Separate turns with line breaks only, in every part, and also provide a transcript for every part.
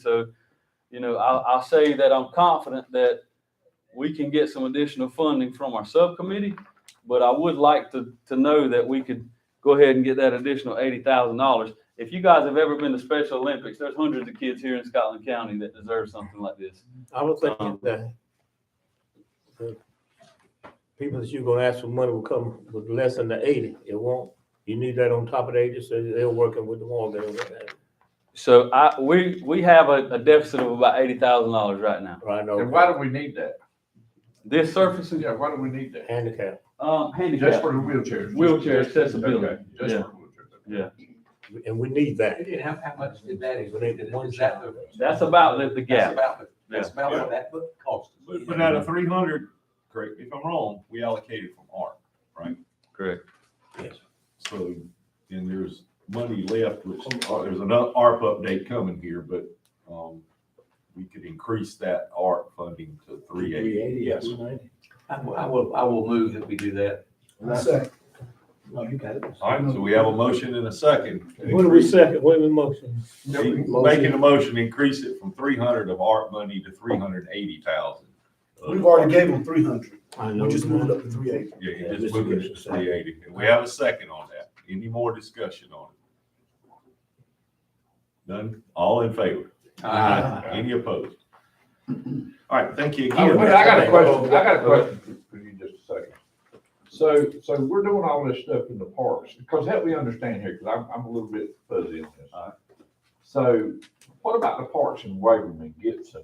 So, you know, I'll, I'll say that I'm confident that we can get some additional funding from our subcommittee, but I would like to, to know that we could go ahead and get that additional eighty thousand dollars. If you guys have ever been to Special Olympics, there's hundreds of kids here in Scotland County that deserve something like this.
I was
Um,
thinking that the people that you're gonna ask for money will come with less than the eighty. It won't. You need that on top of the eighty, so they're working with the one there,
So I, we, we have a, a deficit of about eighty thousand dollars right now.
right
And why
now,
do we need that?
This surfacing,
Yeah, why do we need that?
handicap.
um,
Just
handicap,
for the wheelchairs.
Wheelchair
Just- just-
accessibility.
okay, Just for wheelchairs.
And we need that.
And how, how much did that
We need
include?
one
Is that the?
that's about the, the
That's
gap.
about, the- that's
Yeah.
about what that book cost. us.
But, but out of three hundred, correct me if I'm wrong, we allocated from ARP, right?
Correct.
So, and there's money left, which, uh, there's another ARP update coming here, but, um, we could increase that ARP funding to three eighty. Yes.
I will, I will, I will move that we do that.
Second.
No, you got it.
All right, so we have a motion and a second.
When we second, when we motion.
She- Making a motion, increase it from three hundred of ARP money to three hundred and eighty thousand.
We've already gave them three hundred.
I
We just moved up to three eighty.
Yeah,
Yeah,
you just
Mr.
moving it
Gibson's
to
second.
three eighty. And we have a second on that. Any more discussion on it? None? All in favor?
Aye.
Any opposed? All right, thank you
Oh,
again.
wait, I got a question, I got a question for you just a second. So, so we're doing all this stuff in the parks, because help me understand here, because I'm, I'm a little bit fuzzy on this. So what about the parks in Waverham and Gibson?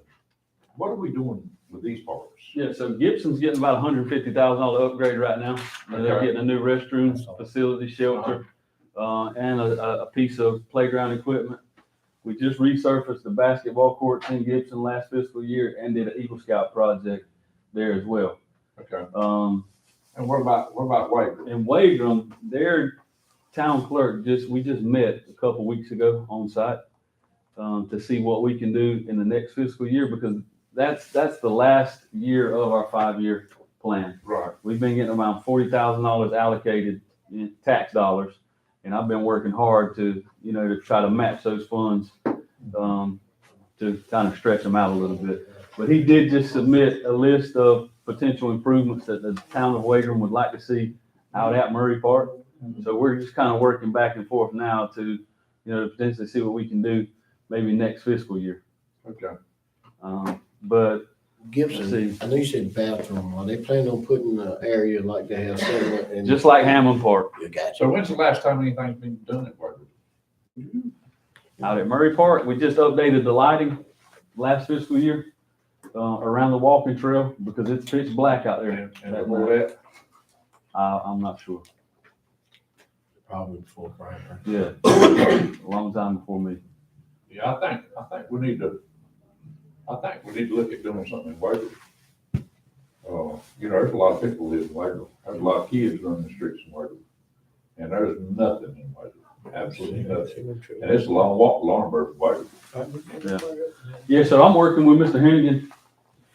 What are we doing with these parks?
Yeah, so Gibson's getting about hundred and fifty thousand dollar upgrade right now. And They're
Okay.
getting a new restroom, facility, shelter, uh, and a, a, a piece of playground equipment. We just resurfaced the basketball courts in Gibson last fiscal year and did an Eagle Scout project there as well.
Okay,
Um,
and what about, what about Waverham?
in Wagram, their town clerk just, we just met a couple weeks ago on site um, to see what we can do in the next fiscal year because that's, that's the last year of our five-year plan
Right,
we've been getting around forty thousand dollars allocated in tax dollars. And I've been working hard to, you know, to try to match those funds, um, to kind of stretch them out a little bit. But he did just submit a list of potential improvements that the town of Wagram would like to see out at Murray Park. So we're just kind of working back and forth now to, you know, potentially see what we can do maybe next fiscal year.
okay.
Um, but let's
Gibson,
see,
I know you said bathroom, are they planning on putting an area like they have settlement in?
just like Hammond Park,
You got
So when's the last time anything's been done at Waverham?
out at Murray Park. We just updated the lighting last fiscal year, uh, around the walking trail because it's pitch black out there.
And, and before that?
I, I'm not sure.
Probably before Brian.
Yeah. A long time before me.
Yeah, I think, I think we need to, I think we need to look at doing something in Waverly. Uh, you know, there's a lot of people live in Waverly, there's a lot of kids running the streets in Waverly, and there's nothing in Waverly, absolutely nothing. And it's a long walk, long bird from Waverly.
Yeah, so I'm working with Mr. Hennigan,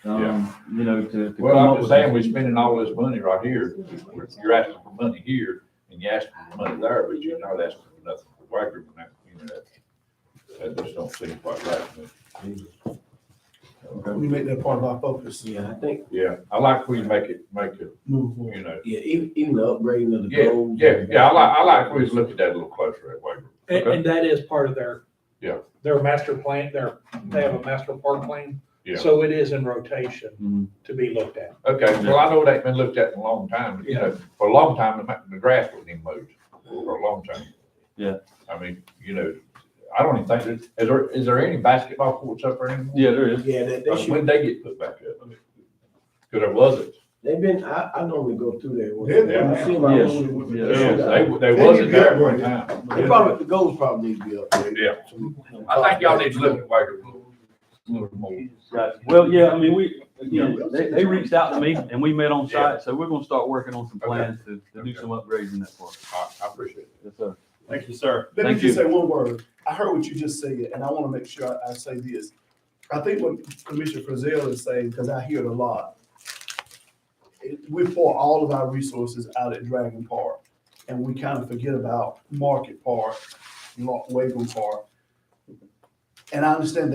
um, you know, to. to
Well,
come
I'm
up
just
with-
saying, we're spending all this money right here, you're asking for money here, and you're asking for money there, but you're not asking for nothing for Waverly, and that, you know, that, that just don't seem quite right to me.
We make that part of our focus.
Yeah, I think,
Yeah, I like when you make it, make it,
Move forward.
you know,
yeah, even, even the upgrading of the
Yeah,
goals.
Yeah, yeah, I like, I like, we just looked at that a little closer at Waverly.
And,
Okay.
and that is part of their.
Yeah.
Their master plan, their, they have a master park plan.
Yeah.
So it is in rotation
Mm-hmm.
Mhm.
to be looked at.
Okay, well, I know it ain't been looked at in a long time, but, you know, for a long time, the, ma- the grass wasn't even moved, for a long time.
Yeah.
I mean, you know, I don't even think, there's- is there, is there any basketball courts up there anymore?
Yeah, there is.
Yeah, that, they
Like,
should,
When they get put back up? Cause there wasn't.
they've been, I, I normally go through there. once.
They're there
I see
now.
my
Yes,
own-
yes.
They, they
They
wasn't
need to
there
upgrade
one
it.
time.
They probably, the goals probably need to be upgraded.
Yeah, I think y'all need to look at Waverly a little more.
Right. Well, yeah, I mean, we, you know, they, they reached out to me and we met on site, so we're gonna start working on some
Okay.
plans to, to do
Okay.
some upgrades in that park.
I, I appreciate it.
Yes, sir.
Thank you, sir.
Let me
Thank
just
you.
say one word. I heard what you just said, and I want to make sure I, I say this. I think what Commissioner Frizell is saying, because I hear it a lot, it- we pour all of our resources out at Dragon Park, and we kind of forget about Market Park, Wagon Park. And I understand